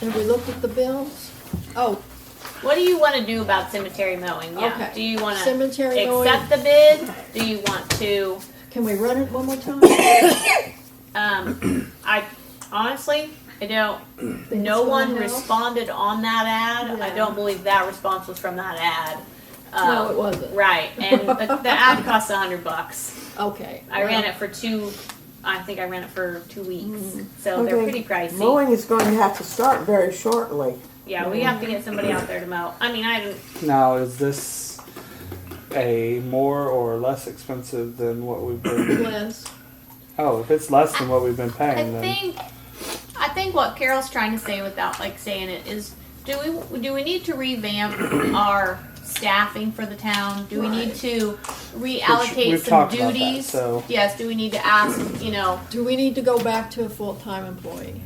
Have we looked at the bills? Oh, What do you want to do about cemetery mowing? Yeah. Okay. Do you want to Cemetery mowing. accept the bid? Do you want to? can we run it one more time? Um, I honestly, I don't. Think No it's one gonna help? responded on that ad. I No. don't believe that response was from that ad. No, Um, it wasn't. Right, and the, the ad costs a hundred bucks. Okay. I ran it for two. I think I ran it for two weeks, Mm-hmm. so they're Okay. pretty pricey. Mowing is going to have to start very shortly. Yeah, we have to get somebody out there to mow. I mean, I didn't. Now, is this a more or less expensive than what we've been? Liz, oh, if it's less than what we've been I paying, then think, I think what Carol's trying to say without like saying it is, do we do we need to revamp our staffing for the town? Do we need to Which reallocate we've some talked about that. duties? So Yes. Do we need to ask? You know, do we need to go back to a full-time employee?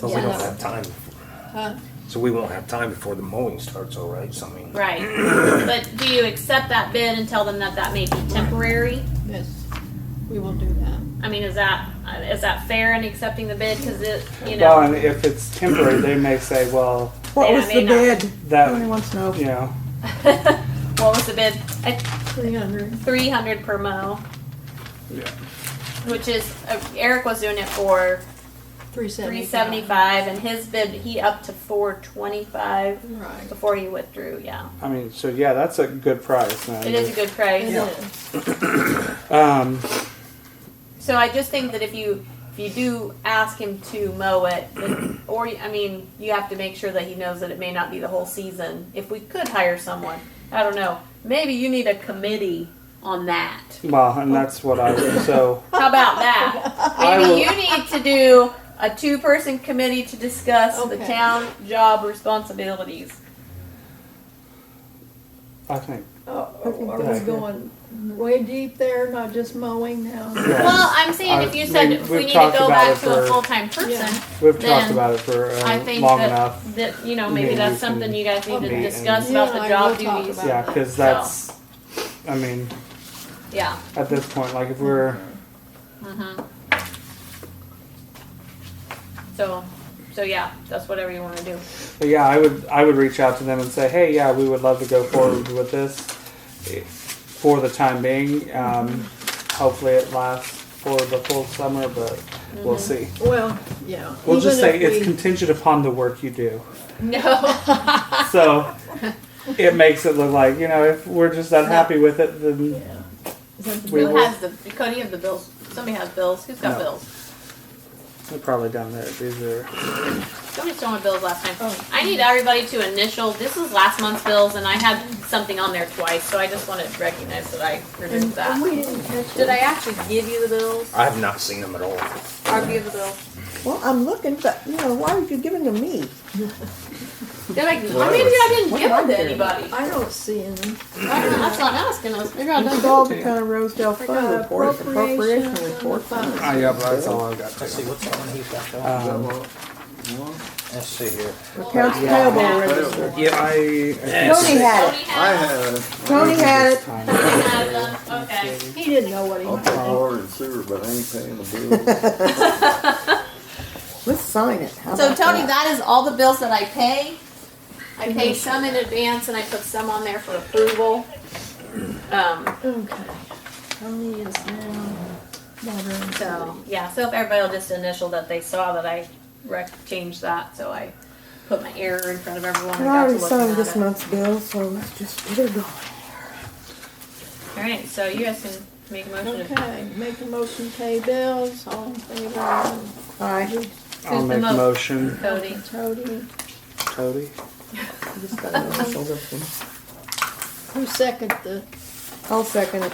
But Yeah. we don't have time. Huh? So we won't have time before the mowing starts, all right? So I mean, right? but do you accept that bid and tell them that that may be temporary? Yes, we will do that. I mean, is that is that fair in accepting the bid? Because it, you know, well, and if it's temporary, they may say, well, What Yeah, was I the mean, uh, bid? Anyone that wants to know? you know, what was the bid? I Three hundred. three hundred per mo. Yeah. Which is uh, Eric was doing it for Three seventy. three seventy five, and his bid he up to four twenty five Right. before he withdrew. Yeah, I mean, so yeah, that's a good price. Now. it is a good It price. is. Um, So I just think that if you if you do ask him to mow it, then- or I mean, you have to make sure that he knows that it may not be the whole season. If we could hire someone, I don't know. Maybe you need a committee on that. well, and that's what I so How about that? I Maybe will- you need to do a two-person committee to discuss the Okay. town job responsibilities. I think. Oh, are that's we good. going way deep there, not just mowing now? Yeah. Well, I'm saying if I- you said Uh, we- if we we've need to talked go about back it to a for- full-time person, Yeah. We've then talked about it for I uh, think long that, enough. that, you know, Maybe maybe we that's can something you guys need to meet discuss and- about Yeah, the I job will talk duties. about- Yeah, because So- that's. I mean, Yeah, at this point, like if we're so, so yeah, that's whatever you wanna do. But yeah, I would I would reach out to them and say, hey, yeah, we would love to go forward with this eh, for the time being. Um, hopefully, it lasts for the full summer, but we'll see. Well, yeah. We'll just Even say Mm-hmm. if it's we- contingent upon the work you do. No, So it makes it look like you know if we're just unhappy with it, then Yeah. Is that the We who bill? will- has the, Cody have the bills, somebody has bills, who's got No. bills? they're probably down there. These are Somebody stole my bills last time. Oh. I need everybody to initial, this is last month's bills, and I had something on there twice, so I just wanna recognize that I removed And and that. we didn't catch Did it. I actually give you the bills? I have not seen them at all. I'll give you the bills. Well, I'm looking, but you know, why are you giving to me? They're like, well, maybe I didn't What give am I them to doing? anybody. I don't see any. I don't know, that's what I'm asking, I was figuring out. It's all the kind of Rosedale I Fund got report, appropriation appropriations on the report. fund. ah yeah, but that's all I've got. Let's see, what's that one he's got Um, Let's see here. Accounts payable register. Yeah, I. Tony had it, Tony I had, had it. Tony had it. Time. Tony had them, okay. He didn't know what he I'll was pay water and sewer, but I ain't paying the bills. Let's sign it. How So about Tony, that? that is all the bills that I pay. I pay some in advance and I put some on there for approval. Um, Okay. Tony is now modern. so, yeah, so if everybody will just initial that they saw that I rec- changed that, so I put my error in front of everyone and I got to already looking signed at this it. month's bill, so let's just get her going. Alright, so you guys can make a motion. to- Okay, make a motion, pay bills, all in favor, Aye. I'll Who's the make mo- motion, Cody. Tony, Cody. I just got an initial this one. who second the, I'll second it.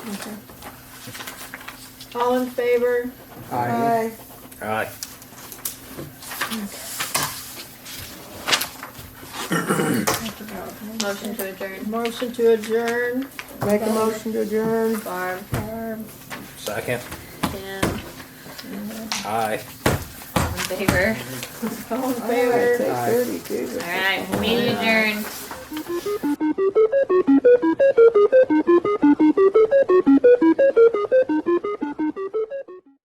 all in favor? Uh, Aye. Aye. All right. Motion to adjourn. Motion to adjourn, Make a motion to adjourn. Barb, Second. Tim, Aye. all in favor. all in Aye, favor? take Aye. thirty-two. Alright, meeting adjourned.